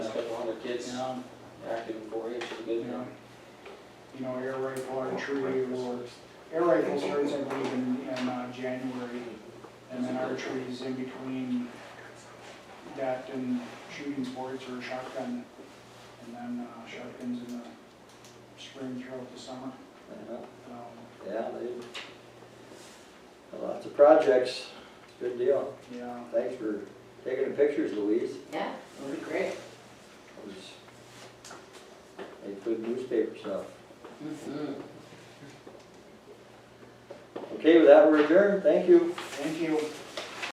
none, active in four H is a you good know. thing. You know, air rifle archery or, air rifle starts, I believe, in, in uh, January. And then archery is in between that and shooting sports or shotgun. And then uh, shotguns in the spring throughout the summer. Yeah, Um, Yeah, they, uh, lots of projects, good deal. Yeah, Thanks for taking the pictures, Louise. Yeah, that'd be great. It was- Made good newspaper stuff. Mhm. Okay, with that, we're adjourned, thank you. thank you.